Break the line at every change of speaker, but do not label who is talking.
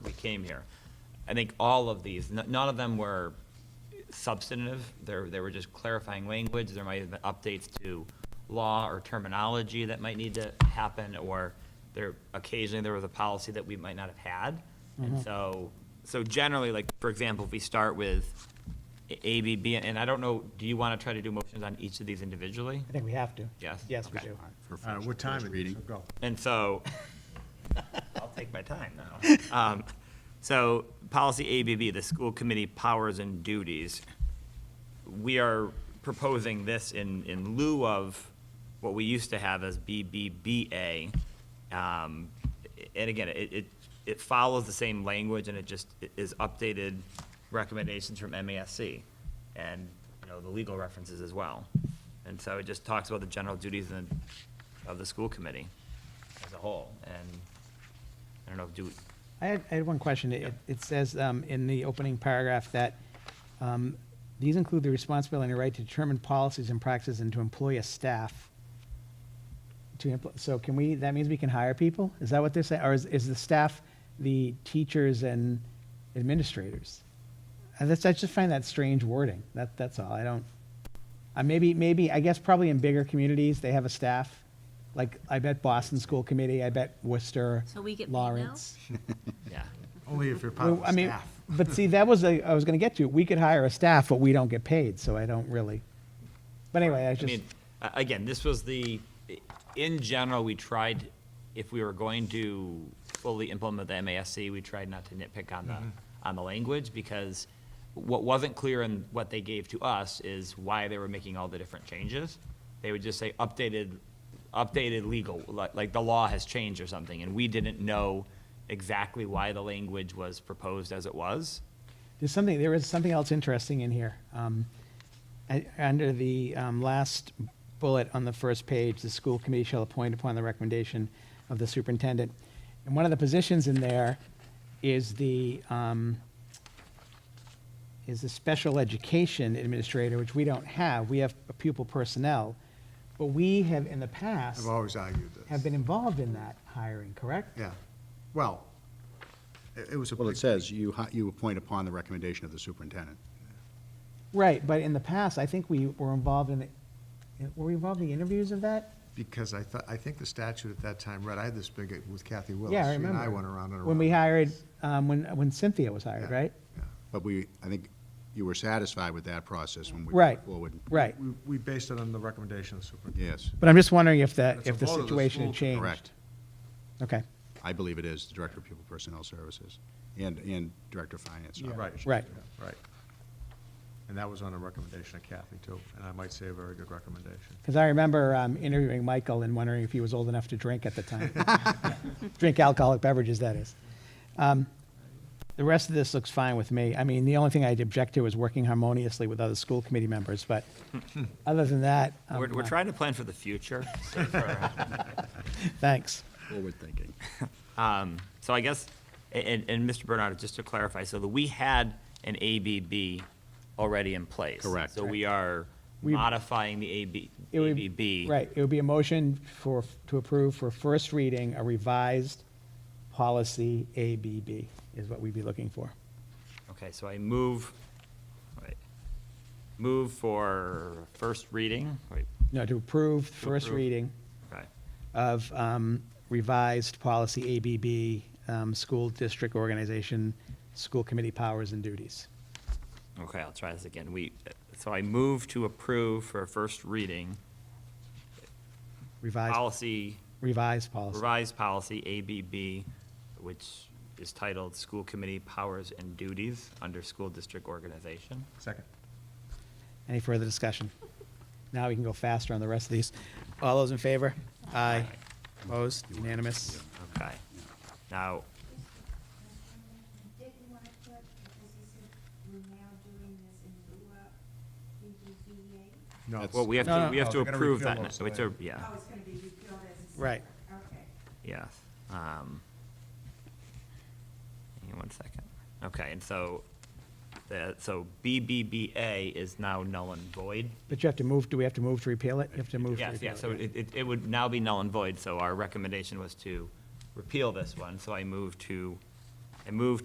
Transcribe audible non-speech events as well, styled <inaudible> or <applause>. came here. I think all of these, n- none of them were substantive. There, they were just clarifying language. There might have been updates to law or terminology that might need to happen, or there, occasionally there was a policy that we might not have had. And so, so generally, like, for example, if we start with A, B, B, and I don't know, do you want to try to do motions on each of these individually?
I think we have to.
Yes?
Yes, we
Okay.
do.
for
All right, Uh, what
first- first
time it is,
reading.
so go.
And so, I'll take my time now. Um, So, policy ABB, the school committee powers and duties. We are proposing this in, in lieu of what we used to have as BBBA. Um, And again, it, it, it follows the same language and it just is updated recommendations from MASC and, you know, the legal references as well. And so it just talks about the general duties and, of the school committee as a whole. And I don't know, do,
I had, I had one question. It, it says um, in the opening paragraph that um, these include the responsibility and the right to determine policies and practices and to employ a staff. To, empl- so can we, that means we can hire people? Is that what they're saying? Or is, is the staff the teachers and administrators? I just, I just find that strange wording. That, that's all. I don't, uh, maybe, maybe, I guess probably in bigger communities, they have a staff. Like, I bet Boston School Committee, I bet Worcester,
So we get paid now?
Lawrence.
yeah.
Only if you're part of
Well, I
the
mean,
staff.
<laughs> but see, that was, a- I was gonna get to, we could hire a staff, but we don't get paid, so I don't really. But anyway, I
I
just,
mean, a- again, this was the, in general, we tried, if we were going to fully implement the MASC, we tried not to nitpick on the, on the language, because what wasn't clear in what they gave to us is why they were making all the different changes. They would just say updated, updated legal, like, like the law has changed or something, and we didn't know exactly why the language was proposed as it was.
there's something, there is something else interesting in here. Um, I- Under the um, last bullet on the first page, the school committee shall appoint upon the recommendation of the superintendent. And one of the positions in there is the, um, is the special education administrator, which we don't have. We have pupil personnel. But we have in the past.
I've always argued this.
have been involved in that hiring, correct?
Yeah, well, it it was a.
Well, it
big-
says you, hi- you appoint upon the recommendation of the superintendent.
Right, but in the past, I think we were involved in, the- were we involved in the interviews of that?
Because I thought, I think the statute at that time read, I had this big uh, with Kathy Willis.
Yeah, I
She
remember.
and I went around and around.
When we hired, um, when, when Cynthia was hired,
Yeah,
right?
yeah.
But we, I think you were satisfied with that process when we.
Right.
put Forward.
Right,
We, we based it on the recommendation of the superintendent.
Yes,
but I'm just wondering if that,
It's a
if the
vote of the
situation had
school to
changed.
correct.
Okay,
I believe it is the Director of Pupil Personnel Services and, and Director of Finance.
Yeah, Right.
Right.
yeah, Right. And that was on a recommendation of Kathy too, and I might say a very good recommendation.
because I remember um, interviewing Michael and wondering if he was old enough to drink at the time. <laughs> Drink alcoholic beverages, that is. Um, The rest of this looks fine with me. I mean, the only thing I'd object to is working harmoniously with other school committee members,
<laughs>
but other than that. um, I'm
We're, we're
not-
trying to plan for the future, so for-
<laughs> Thanks.
Forward thinking.
Um, So I guess, and, and Mr. Bernard, just to clarify, so that we had an ABB already in place.
Correct.
So we are
We-
modifying the AB,
It would-
ABB.
Right, it would be a motion for, to approve for first reading a revised policy ABB is what we'd be looking for.
Okay, so I move, wait, move for first reading, wait,
No, to approve first
approve.
reading
okay,
of um, revised policy ABB, um, school district organization, school committee powers and duties.
okay, I'll try this again. We, so I move to approve for first reading,
Revised,
policy
revised policy.
revised policy ABB, which is titled School Committee Powers and Duties under School District Organization.
Second.
Any further discussion? Now we can go faster on the rest of these. All those in favor? Aye. Opposed? Unanimous?
Okay. Now,
Didn't want to put, because he said we're now doing this in lieu of BBVA.
No.
That's-
well, we have
No,
to,
no.
we have to
Oh, we're gonna
approve
repeal
that.
those,
now. It's a,
right.
yeah,
Oh, it's going to be repealed as a. separate-
Right.
Okay.
yes. Um, Hang on one second. Okay, and so, the, so BBBA is now null and void.
But you have to move, do we have to move to repeal it? You have to move to repeal
Yes,
it.
yeah, so it, it- it would now be null and void, so our recommendation was to repeal this one. So I move to, I move